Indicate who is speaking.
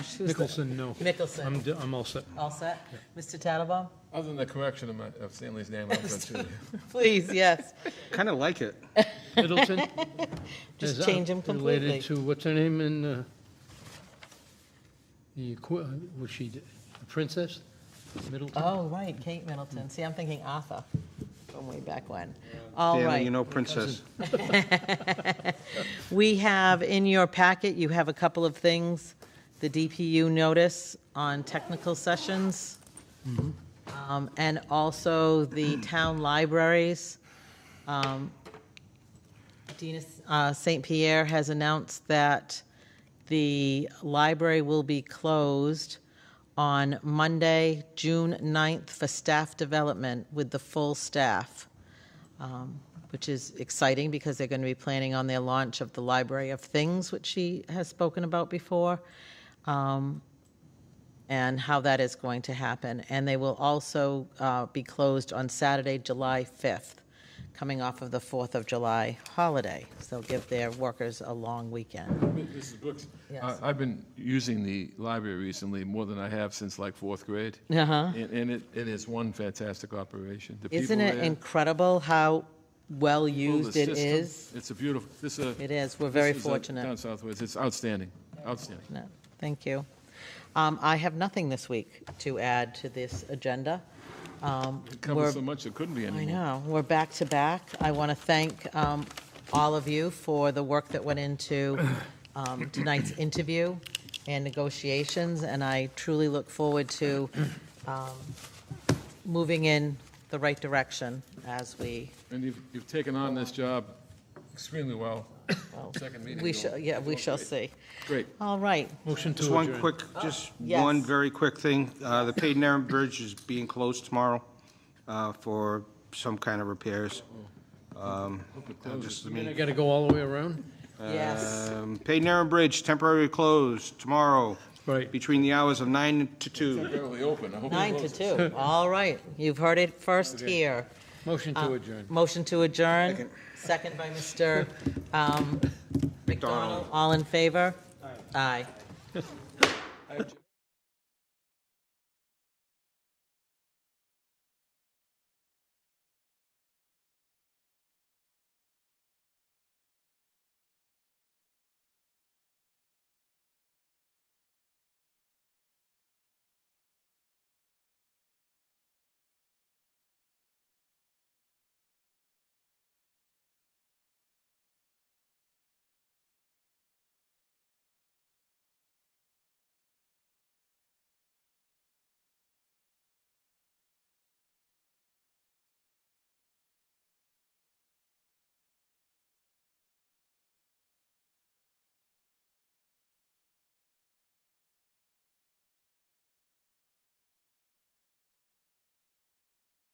Speaker 1: Who's the-
Speaker 2: Mickelson, no.
Speaker 1: Mickelson.
Speaker 2: I'm, d- I'm all set.
Speaker 1: All set? Mr. Tattelbaum?
Speaker 3: Other than the correction of my, of Stanley's name, I'm good too.
Speaker 1: Please, yes.
Speaker 4: Kind of like it.
Speaker 2: Middleton?
Speaker 1: Just
Speaker 2: is, uh,
Speaker 1: change 'em completely.
Speaker 2: Related to, what's her name in, uh, the, qu- was she the princess? Middleton?
Speaker 1: Oh, right, Kate Middleton. See, I'm thinking Arthur from way back when. All
Speaker 4: Danny,
Speaker 1: right.
Speaker 4: you know Princess.
Speaker 1: We have in your packet, you have a couple of things. The DPU notice on technical sessions. Um, And also the town libraries. Um, Dina uh, St. Pierre has announced that the library will be closed on Monday, June 9th for staff development with the full staff which is exciting because they're going to be planning on their launch of the Library of Things, which she has spoken about before, um, and how that is going to happen. And they will also uh, be closed on Saturday, July 5th, coming off of the 4th of July holiday. So give their workers a long weekend.
Speaker 3: Mrs. Brooks?
Speaker 1: Yes.
Speaker 3: I've been using the library recently more than I have since like fourth grade.
Speaker 1: Uh-huh.
Speaker 3: And, and it, it is one fantastic operation. The
Speaker 1: Isn't
Speaker 3: people
Speaker 1: it
Speaker 3: there,
Speaker 1: incredible how well
Speaker 3: the
Speaker 1: used it
Speaker 3: system,
Speaker 1: is?
Speaker 3: It's a beautiful, this is a.
Speaker 1: It is. We're
Speaker 3: this
Speaker 1: very
Speaker 3: is a-
Speaker 1: fortunate.
Speaker 3: Down Southwest, it's outstanding, outstanding.
Speaker 1: No, thank you. Um, I have nothing this week to add to this agenda. Um,
Speaker 3: It
Speaker 1: we're-
Speaker 3: covers so much, it couldn't be
Speaker 1: I
Speaker 3: anymore.
Speaker 1: know, we're back to back. I want to thank um, all of you for the work that went into um, tonight's interview and negotiations, and I truly look forward to um, moving in the right direction as we,
Speaker 3: And you've, you've taken on this job extremely well.
Speaker 1: well,
Speaker 3: Second meeting.
Speaker 1: we
Speaker 3: you're-
Speaker 1: shall, yeah, we
Speaker 3: you're
Speaker 1: shall
Speaker 3: great.
Speaker 1: see.
Speaker 3: Great.
Speaker 1: All right,
Speaker 2: Motion to
Speaker 4: Just
Speaker 2: adjourn.
Speaker 4: one quick, just
Speaker 1: yes.
Speaker 4: one very quick thing. Uh, The Peyton Aaron Bridge is being closed tomorrow uh, for some kind of repairs. Um, I'll Just,
Speaker 2: You mean I gotta go all the way around?
Speaker 3: Uh,
Speaker 1: yes.
Speaker 4: um, Peyton Aaron Bridge temporarily closed tomorrow
Speaker 2: Right.
Speaker 4: between the hours of 9 to 2.
Speaker 3: Barely open, I hope. it
Speaker 1: Nine to
Speaker 3: closes.
Speaker 1: two, all right. You've heard it first here.
Speaker 2: Motion
Speaker 1: Uh,
Speaker 2: to adjourn.
Speaker 1: Motion to adjourn, second by Mr. um, McDonald. All in favor? Aye.
Speaker 3: I object.